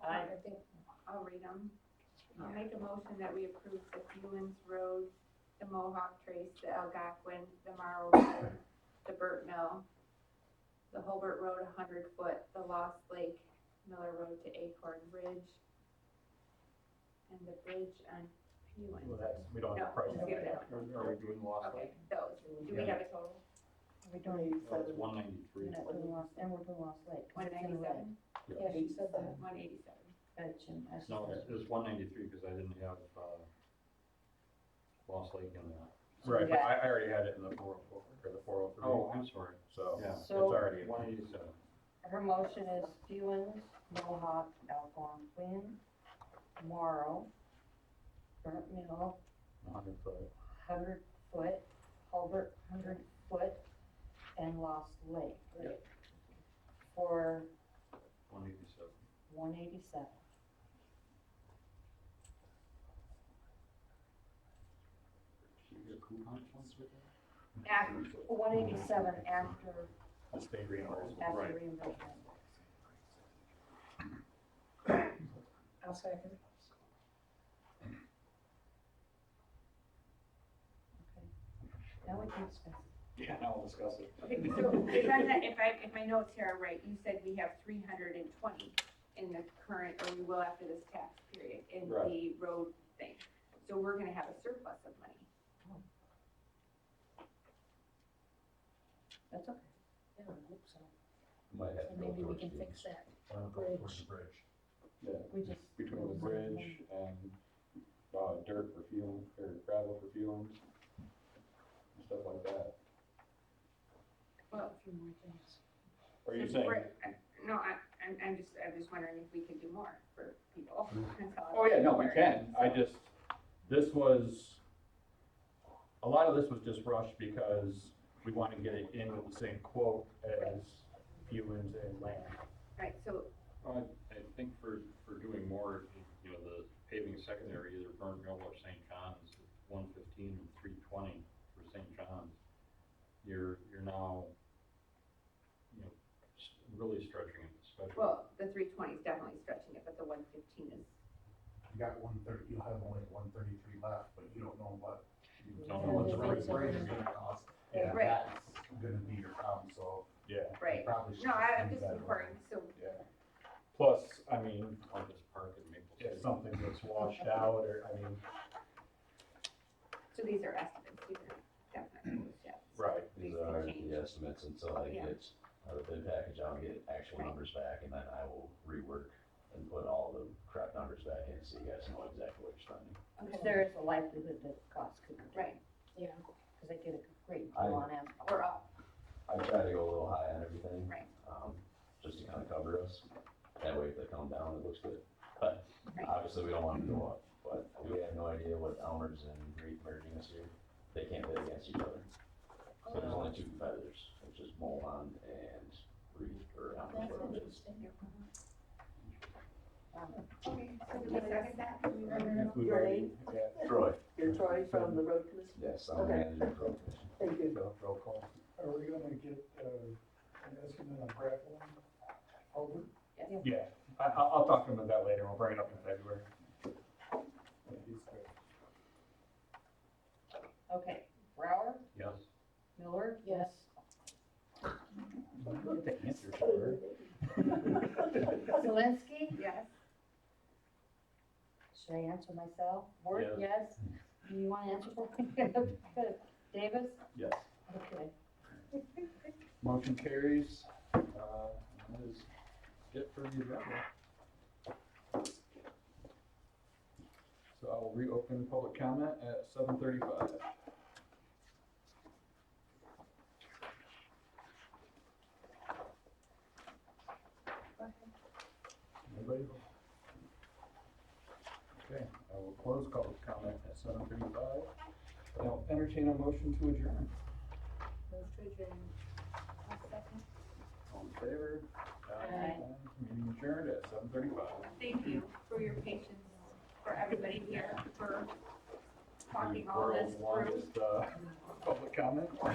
think, I'll read them. I'll make a motion that we approve the Hewens Road, the Mohawk Trace, the Algonquin, the Marl Road, the Burt Mill, the Holbert Road hundred foot, the Lost Lake, Miller Road to Acorn Ridge, and the bridge on Well, Hewens. that's, we don't No, have a price. just give it that Are are we doing lost Okay, lake? those, do we have a total? We don't even No, say it's the, one ninety-three. and we're Lost, and we're doing Lost Lake. 'cause One it's in red. ninety-seven? Yeah, she said that. One eighty-seven. Gotcha. I should- No, it's- it's one ninety-three because I didn't have, uh, lost lake in there. Right, but Yeah. I, I already had it in the four oh four, or the four oh three. Oh, I'm sorry. So, Yeah, it's So- already, one eighty-seven. Her motion is Hewens, Mohawk, Algonquin, Morrow, Burnt Mill, hundred foot. Hundred Foot, Hulbert Hundred Foot, and Lost Lake. Yep. For One eighty-seven. one eighty-seven. Should we get a coupon once with that? After, one eighty-seven after, the state reimbursement. after reimbursement. I'll second. Now we can discuss. Yeah, now we'll discuss it. Okay, so if I'm, not- if I, if my notes here are right, you said we have three hundred and twenty in the current, or we will after this tax period, in Right. the road thing. So we're gonna have a surplus of money. That's okay. Yeah, I hope so. Might have So to go maybe we towards can the- fix that. Uh, Bridge. for the Bridge. Yeah, We just. between the bridge and, uh, dirt for fuel, or gravel for fuel, and stuff like that. Well, A few more things. Are you saying? Right, I- uh, No, I, I'm, I'm just, I'm just wondering if we could do more for people. That's all. Oh, yeah, no, we can, I So- just, This was, a lot of this was just rushed because we wanted to get it in with the same quote as Hewens and Land. Right, so, I, I think for, for doing more, you know, the paving secondary, either Burnt Mill or St. John's, one fifteen and three twenty for St. John's, you're, you're now, you know, s- really stretching it, especially. well, the three twenty is definitely stretching it, but the one fifteen is, You got one thirty, you have only one thirty-three left, but you don't know what. You Don't know what's Yeah, right. it's like- It's gonna cost, and Right. that's gonna be your problem, so. Yeah, you right? Probably should. No, I, I'm do just better. inquiring, so, yeah. Plus, I mean, Like this park in Maple City. if something gets washed out or, I mean, so these are estimates, these are definitely, yeah. right, These These can are change. the estimates until I Yeah. get uh, the bid package, I'll get actual Right. numbers back and then I will rework and put all the correct numbers back in so you guys know exactly what you're spending. Okay. There is a likelihood that the cost could go down. Right, Yeah. Because they did a great I- deal on asphalt. or up, I try to go a little high on everything. Right. Um, just to kind of cover us. That way if they come down, it looks good. But Right. obviously we don't want to go up, but we have no idea what Elmer's and Reed merging this year. They can't bid against each other. So there's only two competitors, which is Molon and Reed or Elmer's. That's whatever it is. interesting. Um, okay, so do we second that? if we've already, yeah. Troy, You're Troy from the road commission? yes, I'm the Okay. manager of Road Commission. Thank you. So, Roll call. Are we gonna get, uh, an estimate on grappling? Over? Yeah, I, I'll, I'll talk to him about that later, we'll bring it up in February. Okay, Brower, Yes, Miller, Yes. Zelinski, Yes, should I answer myself? Worth, yes? Do you want to answer for me? Good. Davis? yes. Okay. Motion carries, uh, that is it for the agenda. So I will reopen public comment at seven thirty-five. Anybody? Okay, I will close public comment at seven thirty-five. I'll entertain a motion to adjourn. Move to adjourn. All in favor? Aye. Meeting adjourned at seven thirty-five. thank you for your patience, for everybody here, for talking all this through. Longest, uh, public comment.